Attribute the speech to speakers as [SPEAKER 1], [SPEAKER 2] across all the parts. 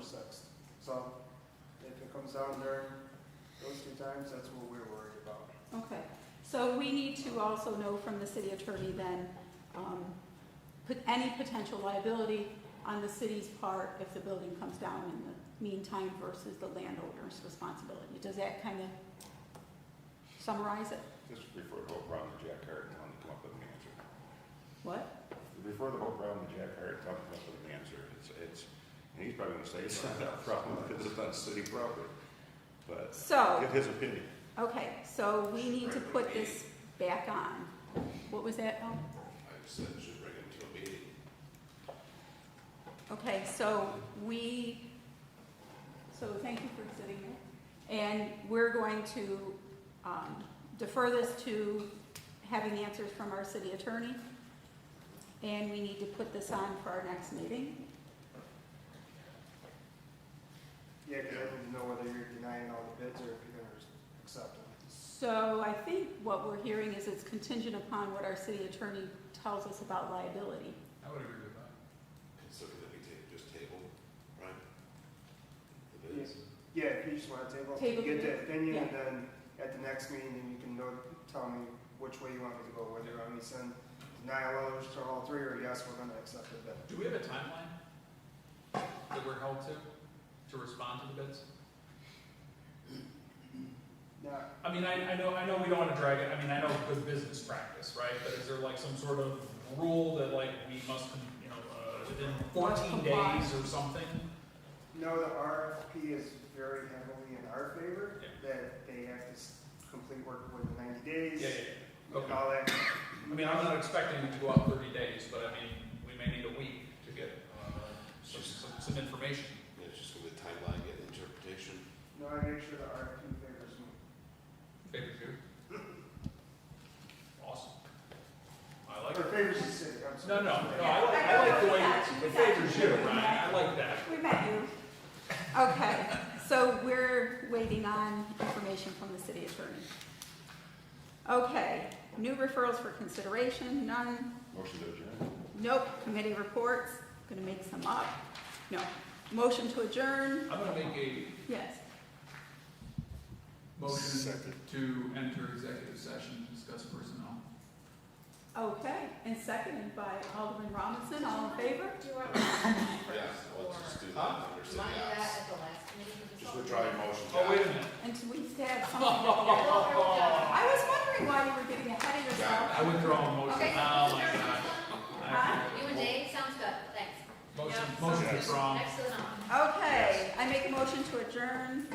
[SPEAKER 1] sixth. So if it comes down during those two times, that's what we're worried about.
[SPEAKER 2] Okay, so we need to also know from the city attorney then, um, put any potential liability on the city's part if the building comes down in the meantime versus the landowner's responsibility. Does that kind of summarize it?
[SPEAKER 3] Just refer the whole problem to Jack Hart and tell him to come up with an answer.
[SPEAKER 2] What?
[SPEAKER 3] Refer the whole problem to Jack Hart and tell him to come up with an answer. It's, it's, and he's probably gonna say it's not our problem because it's not city property. But
[SPEAKER 2] So,
[SPEAKER 3] get his opinion.
[SPEAKER 2] okay, so we need to put this back on. What was that, Paul?
[SPEAKER 3] I said should bring him to a meeting.
[SPEAKER 2] Okay, so we, so thank you for sitting here. And we're going to um, defer this to having answers from our city attorney. And we need to put this on for our next meeting.
[SPEAKER 1] Yeah, because I didn't know whether you're denying all the bids or if you're gonna accept them.
[SPEAKER 2] So I think what we're hearing is it's contingent upon what our city attorney tells us about liability.
[SPEAKER 4] I would agree with that.
[SPEAKER 3] So could we take, just table, right?
[SPEAKER 1] It is. Yeah, if you just want to table,
[SPEAKER 2] Table
[SPEAKER 1] get
[SPEAKER 2] the
[SPEAKER 1] the opinion, and then at the next meeting, you can know, tell me which way you want me to go, whether you want me to send denial letters to all three, or yes, we're gonna accept the bid.
[SPEAKER 4] Do we have a timeline that we're held to, to respond to the bids?
[SPEAKER 1] Now,
[SPEAKER 4] I mean, I, I know, I know we don't wanna drag it, I mean, I know good business practice, right? But is there like some sort of rule that like we must, you know, uh, within fourteen
[SPEAKER 2] Comply.
[SPEAKER 4] days or something?
[SPEAKER 1] no, the RFP is very heavily in our favor,
[SPEAKER 4] Yeah.
[SPEAKER 1] that they have to s- complete work within ninety days.
[SPEAKER 4] Yeah, yeah, yeah,
[SPEAKER 1] and
[SPEAKER 4] okay.
[SPEAKER 1] All that,
[SPEAKER 4] I mean, I'm not expecting it to go out thirty days, but I mean, we may need a week to get, uh, some, some, some information.
[SPEAKER 5] Yeah, it's just gonna be timeline and interpretation.
[SPEAKER 1] no, I make sure the RFP favors me.
[SPEAKER 4] Favorite food? Awesome. I like
[SPEAKER 1] Or
[SPEAKER 4] it.
[SPEAKER 1] favors the city, I'm
[SPEAKER 4] No,
[SPEAKER 1] sorry.
[SPEAKER 4] no, no, I like, I like the way, it favors you, Ryan, I like that.
[SPEAKER 2] We met you. Okay, so we're waiting on information from the city attorney. Okay, new referrals for consideration, none,
[SPEAKER 3] Motion to adjourn.
[SPEAKER 2] nope, committee reports, gonna make some up, no. Motion to adjourn,
[SPEAKER 4] I'm gonna make a
[SPEAKER 2] yes,
[SPEAKER 4] motion to enter executive session to discuss personnel.
[SPEAKER 2] okay, and seconded by Alderman Robinson, all in favor?
[SPEAKER 6] Do you want to
[SPEAKER 5] Yeah, let's just do that. under city
[SPEAKER 6] remind me that
[SPEAKER 5] apps.
[SPEAKER 6] at the last meeting? because
[SPEAKER 5] Just
[SPEAKER 6] all-
[SPEAKER 5] withdraw your motion.
[SPEAKER 4] Oh, wait a minute,
[SPEAKER 2] Until we stab something.
[SPEAKER 6] Oh,
[SPEAKER 2] I was wondering why you were getting ahead of yourself.
[SPEAKER 4] I withdraw a motion,
[SPEAKER 6] Okay.
[SPEAKER 4] oh my god.
[SPEAKER 2] Huh?
[SPEAKER 6] You and Dave, sounds good, thanks.
[SPEAKER 4] Motion,
[SPEAKER 6] Yeah,
[SPEAKER 4] motion
[SPEAKER 6] sounds good.
[SPEAKER 4] withdrawn.
[SPEAKER 6] Next to the number.
[SPEAKER 2] Okay, I make a motion to adjourn,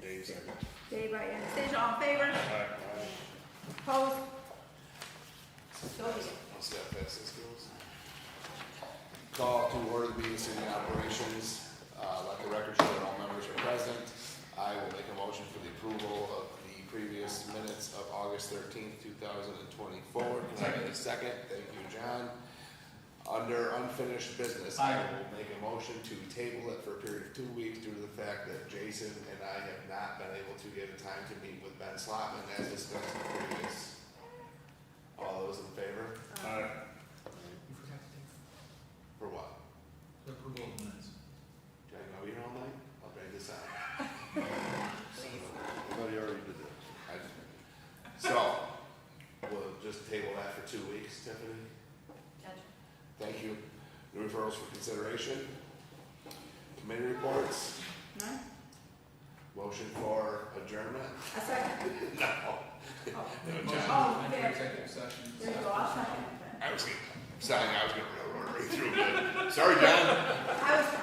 [SPEAKER 3] Dave second.
[SPEAKER 2] Dave, by Anastasia, all in favor? Opposed? So be it.
[SPEAKER 5] Let's see how fast this goes. Call to order the meeting city operations. Uh, Let the record show that all members are present. I will make a motion for the approval of the previous minutes of August thirteenth, two thousand and twenty-four. Can I get a second? Thank you, John. Under unfinished business, I
[SPEAKER 4] Aye.
[SPEAKER 5] will make a motion to table it for a period of two weeks due to the fact that Jason and I have not been able to get a time to meet with Ben Slotman as discussed in the previous. All those in
[SPEAKER 4] You
[SPEAKER 5] favor?
[SPEAKER 4] forgot to
[SPEAKER 5] For what?
[SPEAKER 4] take The approval of the minutes.
[SPEAKER 5] Do I know you're all night? I'll bring this out.
[SPEAKER 3] Everybody already did that.
[SPEAKER 5] I just- So, we'll just table that for two weeks, Tiffany.
[SPEAKER 6] Judge.
[SPEAKER 5] Thank you. New referrals for consideration. Committee reports,
[SPEAKER 2] No?
[SPEAKER 5] motion for adjournment?
[SPEAKER 2] A second?
[SPEAKER 5] No.
[SPEAKER 4] Motion
[SPEAKER 2] Oh,
[SPEAKER 4] to
[SPEAKER 2] yeah.
[SPEAKER 4] enter executive session.
[SPEAKER 2] There you go, I'll second it
[SPEAKER 5] I was gonna, sorry, I was gonna railroad right through, but, sorry, John.
[SPEAKER 2] then. I was